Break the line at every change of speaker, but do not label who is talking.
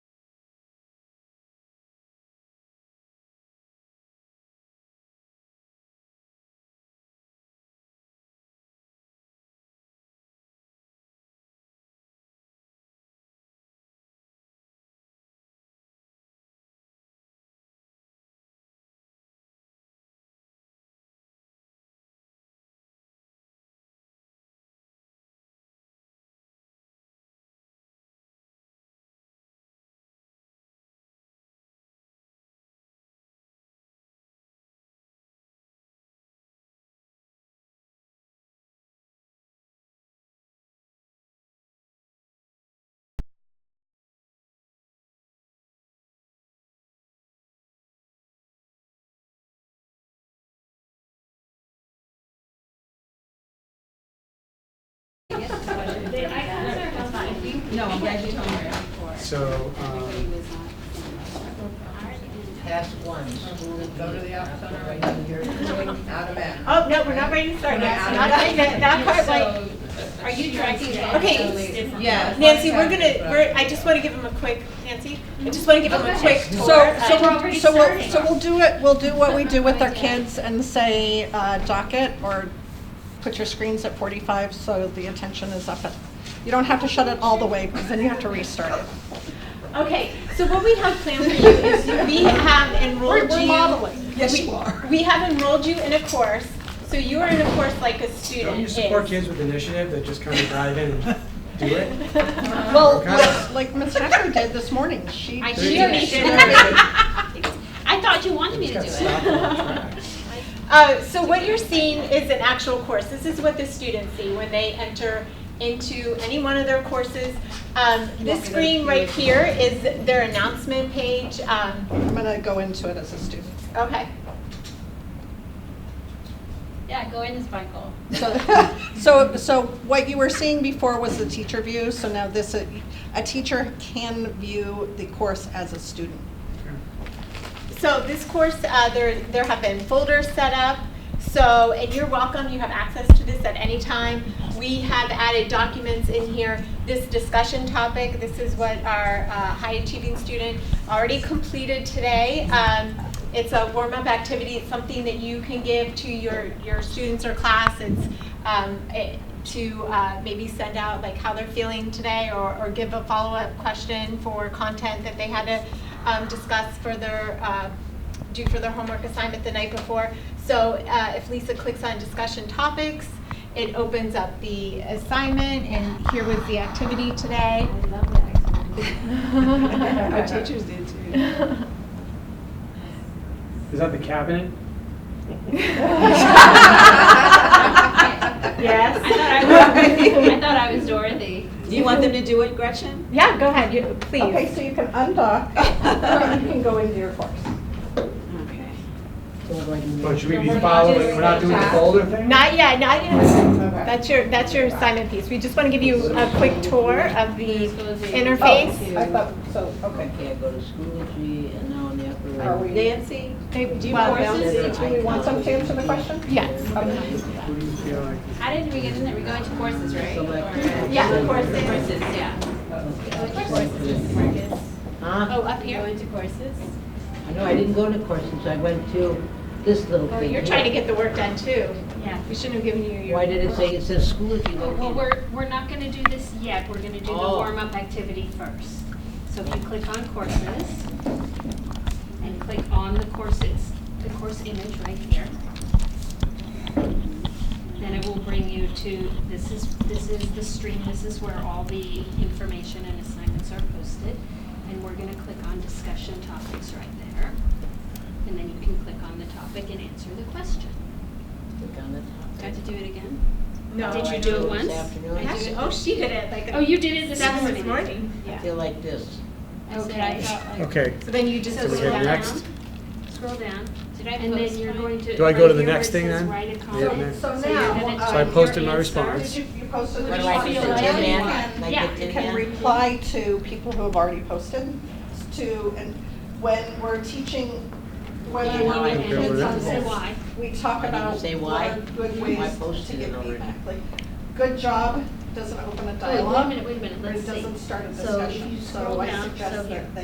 No, I'm glad you told me that before.
So, um,
Past one, school is go to the office on our way down here, out of bounds.
Oh, no, we're not ready to start yet. Not that, not quite like,
Are you directing?
Okay.
Yes.
Nancy, we're gonna, we're, I just wanna give him a quick, Nancy, I just wanna give him a quick
So,
tour.
so
I-
we'll, so we'll, so we'll do it, we'll do what we do with our kids and say uh, docket or put your screens at forty-five so the attention is up. at- You don't have to shut it all the way because then you have to restart it.
Okay, so what we have planned for you is we have enrolled you.
Yes,
we-
you are.
We have enrolled you in a course, so you are in a course like a student
don't you support
is.
kids with initiative that just kind of dive in and do it?
Well,
Okay.
like- like Ms. Hacker did this morning, she.
I
There
She
you go.
already did I thought you wanted me to
Just
do
got
it.
stopped on track.
Uh, so what you're seeing is an actual course. This is what the students see when they enter into any one of their courses. Um, this screen right here is their announcement page. Um,
I'm gonna go into it as a student.
okay.
Yeah, go in as Michael.
So, so, so what you were seeing before was the teacher view, so now this, uh, a teacher can view the course as a student.
So this course, uh, there, there have been folders set up. So, and you're welcome, you have access to this at any time. We have added documents in here, this discussion topic, this is what our uh, high achieving student already completed today. Um, It's a warm-up activity, it's something that you can give to your, your students or class. It's um, it- to uh, maybe send out like how they're feeling today or, or give a follow-up question for content that they had to um, discuss further, uh, do for their homework assignment the night before. So uh, if Lisa clicks on discussion topics, it opens up the assignment, and here was the activity today.
I love that.
Our teachers did too.
Is that the cabinet?
Yes.
I thought I was, I thought I was Dorothy.
Do you want them to do it, Gretchen?
Yeah, go ahead, you,
Okay,
please.
so you can undock, and you can go into your course.
Okay.
But should we be
We're not
following,
doing
we're not doing the
that.
folder thing?
Not yet, not yet. That's your, that's your assignment piece. We just want to give you a quick tour of the interface.
I thought, so, okay.
Okay, I go to Schoology and now on the upper.
Are we-
Nancy?
They- do you
Well,
want them?
this is-
Do we want some to answer the question?
Yes.
What do you feel like?
How did we get in there? We go into courses, right? Or-
Yeah, courses.
Courses, yeah. Go into courses, Marcus.
Huh?
Oh, up here? Go into courses?
I know, I didn't go to courses, I went to this little
Oh,
thing.
You're trying to get the work done too.
Yeah.
We shouldn't have given you your.
Why did it say, it says Schoology located?
Well, we're, we're not gonna do this yet, we're gonna do the
Oh.
warm-up activity first. So if you click on courses, and click on the courses, the course image right here, then it will bring you to, this is, this is the stream, this is where all the information and assignments are posted. And we're gonna click on discussion topics right there, and then you can click on the topic and answer the question.
Click on the top.
Do I have to do it again?
No.
Did
I
you
did
do
it
it
this
once?
afternoon.
I did it-
Oh, she did it like.
Oh, you did it this
Seven
morning.
this morning.
I
Yeah.
feel like this.
I said I
Okay.
felt like-
Okay,
So then you just.
So
we
scroll
go
down.
to next?
Scroll down,
Did I
and then you're going to.
Do I go to
right
the
here where
next
it
thing
says
then?
Write a
Yeah,
column.
So
next.
So uh, you're gonna
now,
type
So I
your
posted my
answer.
response.
did you, you posted the
What do I
response?
feel
do,
like?
Tin Man?
Yeah.
Like the
Yeah.
Tin
You can
Man?
reply to people who have already posted to, and when we're teaching, when
Yeah,
we're
Okay,
teaching
we're
kids on
done.
Say
this,
why.
we talk
Why did you
about
say
what
why?
are good
Why
ways to
posted it
get
already?
feedback, like, good job doesn't open a
Oh, wait, wait a
dialogue,
minute, wait a minute,
or
let's
it
see.
doesn't start a
So if you
discussion,
scroll
so I
down, so
suggest
here.
that they